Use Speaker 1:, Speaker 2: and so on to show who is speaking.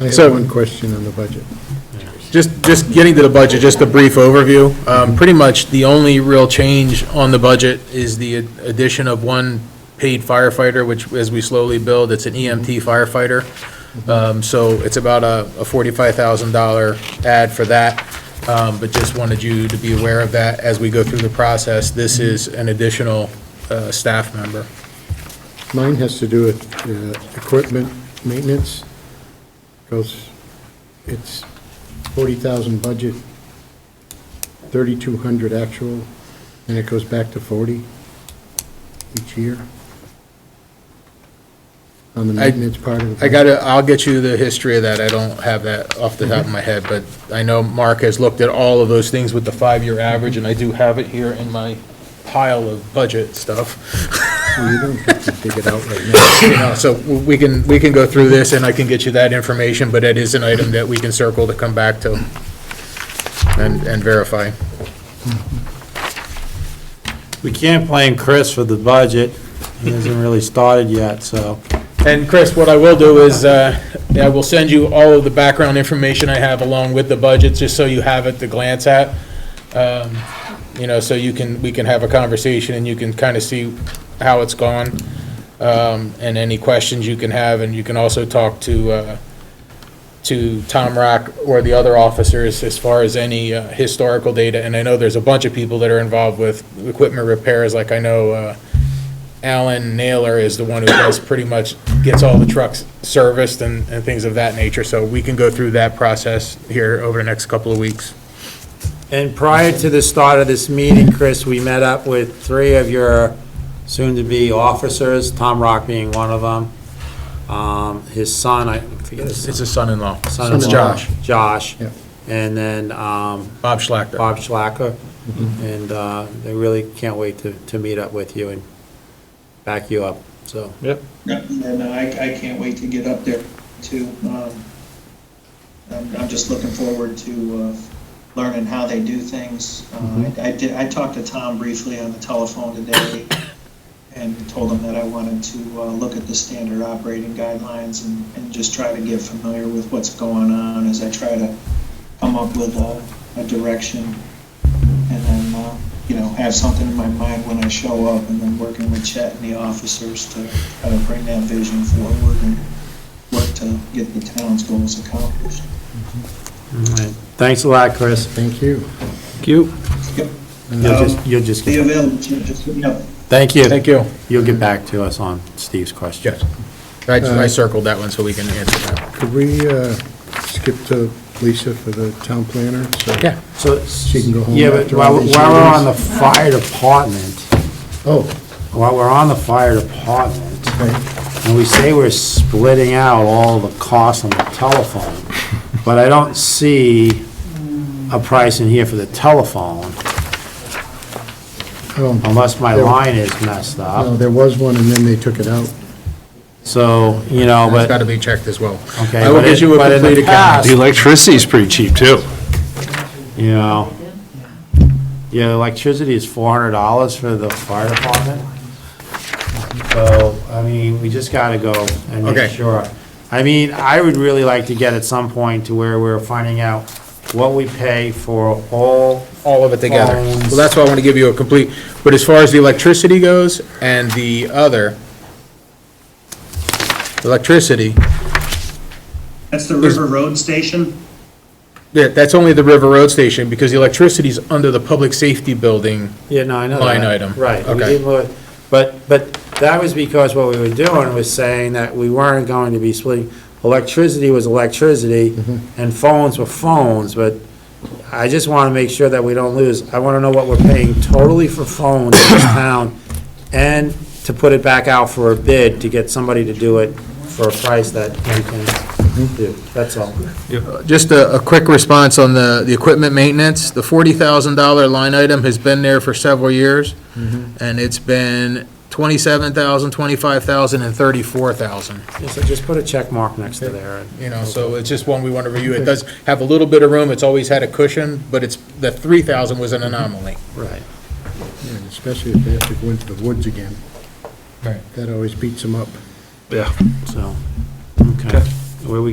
Speaker 1: I have
Speaker 2: So-
Speaker 1: one question on the budget.
Speaker 2: Just, just getting to the budget, just a brief overview. Um, Pretty much the only real change on the budget is the addition of one paid firefighter, which as we slowly build, it's an EMT firefighter. Um, So it's about a a $45,000 add for that, Um, but just wanted you to be aware of that as we go through the process. This is an additional uh, staff member.
Speaker 1: Mine has to do with uh, equipment maintenance, because it's 40,000 budget, 3,200 actual, and it goes back to 40 each year on the
Speaker 2: I-
Speaker 1: maintenance part of the...
Speaker 2: I gotta, I'll get you the history of that, I don't have that off the top of my head, but I know Mark has looked at all of those things with the five-year average, and I do have it here in my pile of budget stuff.
Speaker 1: Well, You don't have to dig it out right now.
Speaker 2: You know, So we can, we can go through this, and I can get you that information, but it is an item that we can circle to come back to and, and verify.
Speaker 3: We can't blame Chris for the budget. He hasn't really started yet, so.
Speaker 2: And Chris, what I will do is, uh, I will send you all of the background information I have along with the budget, just so you have it to glance at. Um, You know, so you can, we can have a conversation and you can kind of see how it's gone, um, and any questions you can have, and you can also talk to, uh, to Tom Rock or the other officers as far as any uh, historical data. And I know there's a bunch of people that are involved with equipment repairs, like I know uh, Alan Naylor is the one who does pretty much, gets all the trucks serviced and, and things of that nature. So we can go through that process here over the next couple of weeks.
Speaker 3: And prior to the start of this meeting, Chris, we met up with three of your soon-to-be officers, Tom Rock being one of them. Um, his son, I forget his
Speaker 2: It's a son-in-law.
Speaker 3: son.
Speaker 2: It's Josh,
Speaker 3: Josh.
Speaker 1: Yeah.
Speaker 3: And then, um,
Speaker 2: Bob Schlachter.
Speaker 3: Bob Schlacker. And, uh, they really can't wait to, to meet up with you and back you up, so.
Speaker 4: Yep, and uh, I, I can't wait to get up there too. Um, I'm, I'm just looking forward to, uh, learning how they do things. Uh, I I did, I talked to Tom briefly on the telephone today and told him that I wanted to, uh, look at the standard operating guidelines and, and just try to get familiar with what's going on as I try to come up with a, a direction. And then, uh, you know, have something in my mind when I show up and then working with Chet and the officers to try to bring that vision forward and work to get the town's goals accomplished.
Speaker 3: All right. Thanks a lot, Chris.
Speaker 1: Thank you.
Speaker 3: You.
Speaker 4: Yep.
Speaker 3: You'll just, you'll just,
Speaker 4: Be
Speaker 3: get-
Speaker 4: available, Chet, just let me know.
Speaker 3: thank you.
Speaker 2: Thank you.
Speaker 3: You'll get back to us on Steve's question.
Speaker 2: Yes. I, I circled that one so we can answer that.
Speaker 1: Could we uh, skip to Lisa for the town planner? So-
Speaker 2: Yeah.
Speaker 3: So,
Speaker 1: She can go home
Speaker 3: yeah, but
Speaker 1: after
Speaker 3: while,
Speaker 1: all these
Speaker 3: while we're
Speaker 1: meetings.
Speaker 3: on the fire department,
Speaker 1: Oh,
Speaker 3: while we're on the fire department,
Speaker 1: right.
Speaker 3: and we say we're splitting out all the costs on the telephone, but I don't see a price in here for the telephone,
Speaker 1: Oh,
Speaker 3: unless my
Speaker 1: There-
Speaker 3: line is messed
Speaker 1: No,
Speaker 3: up.
Speaker 1: there was one, and then they took it out.
Speaker 3: So, you know,
Speaker 2: It's
Speaker 3: but,
Speaker 2: gotta be checked as well.
Speaker 3: okay.
Speaker 2: I will
Speaker 3: but
Speaker 2: get
Speaker 3: it-
Speaker 2: you a
Speaker 3: but in the
Speaker 2: complete account.
Speaker 3: past,
Speaker 5: The electricity's pretty cheap, too.
Speaker 3: You know, yeah, electricity is four hundred dollars for the fire department. So, I mean, we just gotta go and make
Speaker 2: Okay.
Speaker 3: sure. I mean, I would really like to get at some point to where we're finding out what we pay for all,
Speaker 2: all of it together.
Speaker 3: Phones.
Speaker 2: Well, that's why I want to give you a complete, but as far as the electricity goes and the other, electricity,
Speaker 6: That's the River Road Station?
Speaker 2: yeah, that's only the River Road Station because the electricity's under the public safety building.
Speaker 3: yeah, no, I know that.
Speaker 2: Line item.
Speaker 3: Right. we
Speaker 2: Okay.
Speaker 3: didn't look- But, but that was because what we were doing was saying that we weren't going to be splitting, electricity was electricity,
Speaker 2: Mm-hmm.
Speaker 3: and phones were phones, but I just want to make sure that we don't lose, I want to know what we're paying totally for phones in this town, and to put it back out for a bid, to get somebody to do it for a price that we can do,
Speaker 2: Mm-hmm.
Speaker 3: that's all.
Speaker 2: Just a, a quick response on the, the equipment maintenance. The forty thousand dollar line item has been there for several years. And it's been twenty-seven thousand, twenty-five thousand, and thirty-four thousand.
Speaker 3: So just put a check mark next to there, and
Speaker 2: you know, so it's just one we want to review. It does have a little bit of room, it's always had a cushion, but it's, the 3,000 was an anomaly.
Speaker 3: Right.
Speaker 1: Yeah, Especially if they have to go into the woods again.
Speaker 2: Right.
Speaker 1: That always beats them up.
Speaker 5: Yeah.
Speaker 3: So, okay, where we